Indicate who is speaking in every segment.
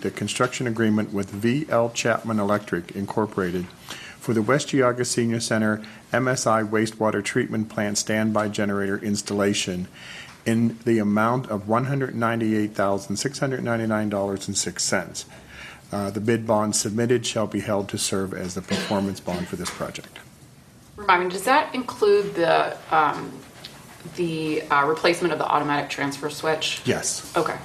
Speaker 1: the construction agreement with V.L. Chapman Electric Incorporated for the West Geauga Senior Center MSI wastewater treatment plant standby generator installation in the amount of $198,699.06. Uh, The bid bond submitted shall be held to serve as the performance bond for this project.
Speaker 2: Remind me, does that include the, um, the uh, replacement of the automatic transfer switch?
Speaker 1: Yes.
Speaker 2: Okay.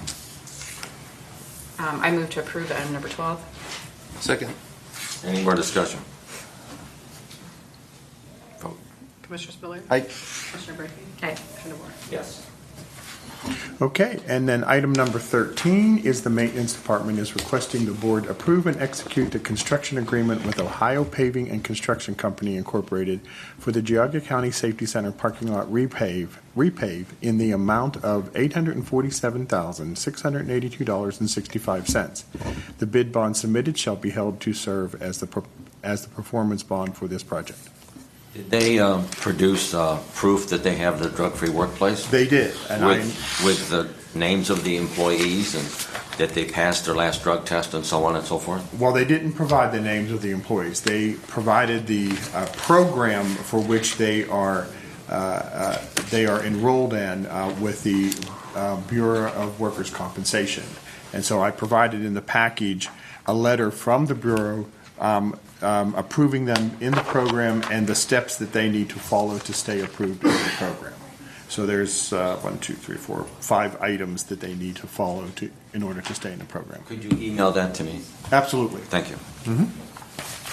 Speaker 2: Um, I move to approve item number 12.
Speaker 3: Second.
Speaker 4: Any more discussion? Vote.
Speaker 5: Commissioner Spiller?
Speaker 3: Aye.
Speaker 5: Commissioner Brinkley?
Speaker 2: Aye.
Speaker 5: Commissioner DeBoer?
Speaker 4: Yes.
Speaker 1: Okay, and then item number 13 is the Maintenance Department is requesting the board approve and execute the construction agreement with Ohio Paving and Construction Company Incorporated for the Geauga County Safety Center parking lot repave, repave in the amount of $847,682.65. The bid bond submitted shall be held to serve as the, per- as the performance bond for this project.
Speaker 4: Did they um, produce uh, proof that they have the drug-free workplace?
Speaker 1: They did, and I,
Speaker 4: With, with the names of the employees and that they passed their last drug test and so on and so forth?
Speaker 1: Well, they didn't provide the names of the employees. They provided the uh, program for which they are, uh, uh, they are enrolled in uh, with the uh, Bureau of Workers' Compensation. And so I provided in the package a letter from the Bureau um, um, approving them in the program and the steps that they need to follow to stay approved in the program. So there's uh, one, two, three, four, five items that they need to follow to, in order to stay in the program.
Speaker 4: Could you email that to me?
Speaker 1: Absolutely.
Speaker 4: Thank you.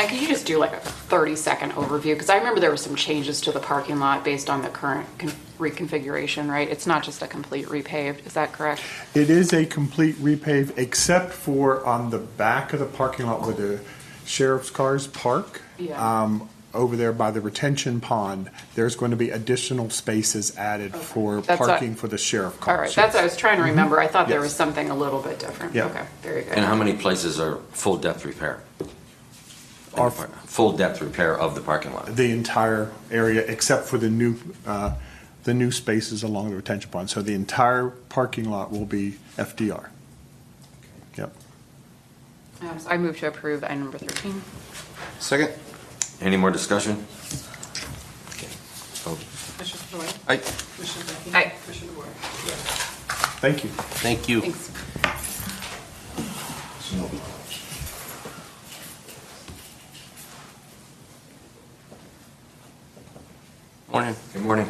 Speaker 2: And could you just do like a 30-second overview? Because I remember there were some changes to the parking lot based on the current con- reconfiguration, right? It's not just a complete repaved, is that correct?
Speaker 1: It is a complete repave, except for on the back of the parking lot where the sheriff's cars park.
Speaker 2: Yeah.
Speaker 1: Um, over there by the retention pond, there's going to be additional spaces added for
Speaker 2: That's what-
Speaker 1: parking for the sheriff
Speaker 2: All
Speaker 1: cars.
Speaker 2: right, that's what I was trying to remember. I thought there
Speaker 1: Mm-hmm. Yes.
Speaker 2: was something a little bit different.
Speaker 1: Yeah.
Speaker 2: Okay, very good.
Speaker 4: And how many places are full depth repair?
Speaker 1: Are-
Speaker 4: Full depth repair of the parking lot?
Speaker 1: The entire area, except for the new, uh, the new spaces along the retention pond. So the entire parking lot will be FDR. Yep.
Speaker 2: Um, so I move to approve item number 13.
Speaker 3: Second.
Speaker 4: Any more discussion? Okay. Oh, Vote.
Speaker 5: Commissioner Spiller?
Speaker 3: Aye.
Speaker 5: Commissioner Brinkley?
Speaker 2: Aye.
Speaker 5: Commissioner DeBoer?
Speaker 1: Thank you.
Speaker 3: Thank you.
Speaker 2: Thanks.
Speaker 3: Morning.
Speaker 4: Good morning.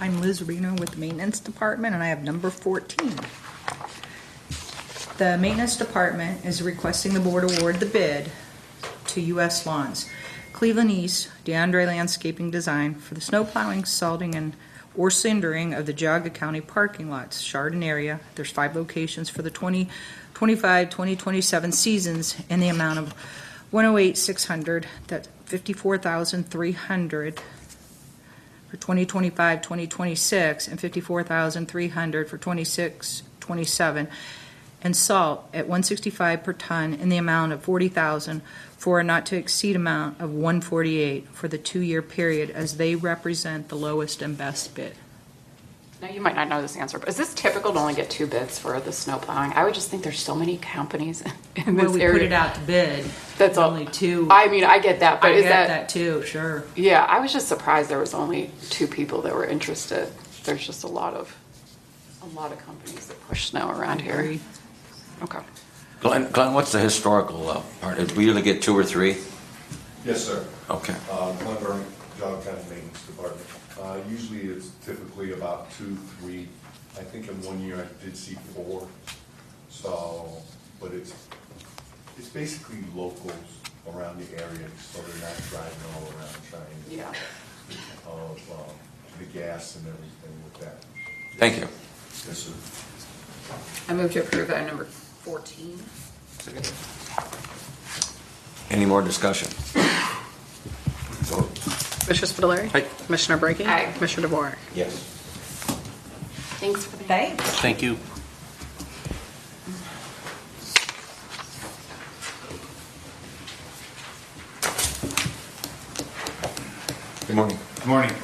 Speaker 6: I'm Liz Reno with the Maintenance Department, and I have number 14. The Maintenance Department is requesting the board award the bid to U.S. Lawns, Cleveland East, DeAndre Landscaping Design for the snow plowing, salting, and or cindering of the Geauga County parking lots, Chardon area. There's five locations for the 2025, 2027 seasons in the amount of 108,600, that's 54,300 for 2025, 2026, and 54,300 for 26, 27, and salt at 165 per ton in the amount of 40,000 for a not to exceed amount of 148 for the two-year period as they represent the lowest and best bid.
Speaker 2: Now, you might not know this answer, but is this typical to only get two bids for the snow plowing? I would just think there's so many companies in
Speaker 6: When
Speaker 2: this
Speaker 6: we
Speaker 2: area.
Speaker 6: put it out to bid,
Speaker 2: That's all.
Speaker 6: only two, I
Speaker 2: I mean, I get that, but is
Speaker 6: get
Speaker 2: that,
Speaker 6: that too, sure.
Speaker 2: yeah, I was just surprised there was only two people that were interested. There's just a lot of, a lot of companies that push snow around here.
Speaker 6: Agree.
Speaker 2: Okay.
Speaker 4: Glenn, Glenn, what's the historical uh, part? Did we usually get two or three?
Speaker 7: Yes, sir.
Speaker 4: Okay.
Speaker 7: Uh, Glen Burn, John County Maintenance Department. Uh, Usually it's typically about two, three. I think in one year I did see four. So, but it's, it's basically locals around the area, so they're not driving all around trying
Speaker 2: Yeah.
Speaker 7: to, of um, the gas and everything with that.
Speaker 4: Thank you.
Speaker 7: Yes, sir.
Speaker 2: I move to approve item number 14.
Speaker 4: Any more discussion? Vote.
Speaker 5: Commissioner Spiller?
Speaker 3: Aye.
Speaker 5: Commissioner Brinkley?
Speaker 2: Aye.
Speaker 5: Commissioner DeBoer?
Speaker 4: Yes.
Speaker 2: Thanks for the.
Speaker 6: Thanks.
Speaker 3: Thank you.
Speaker 4: Good morning.
Speaker 8: Good morning.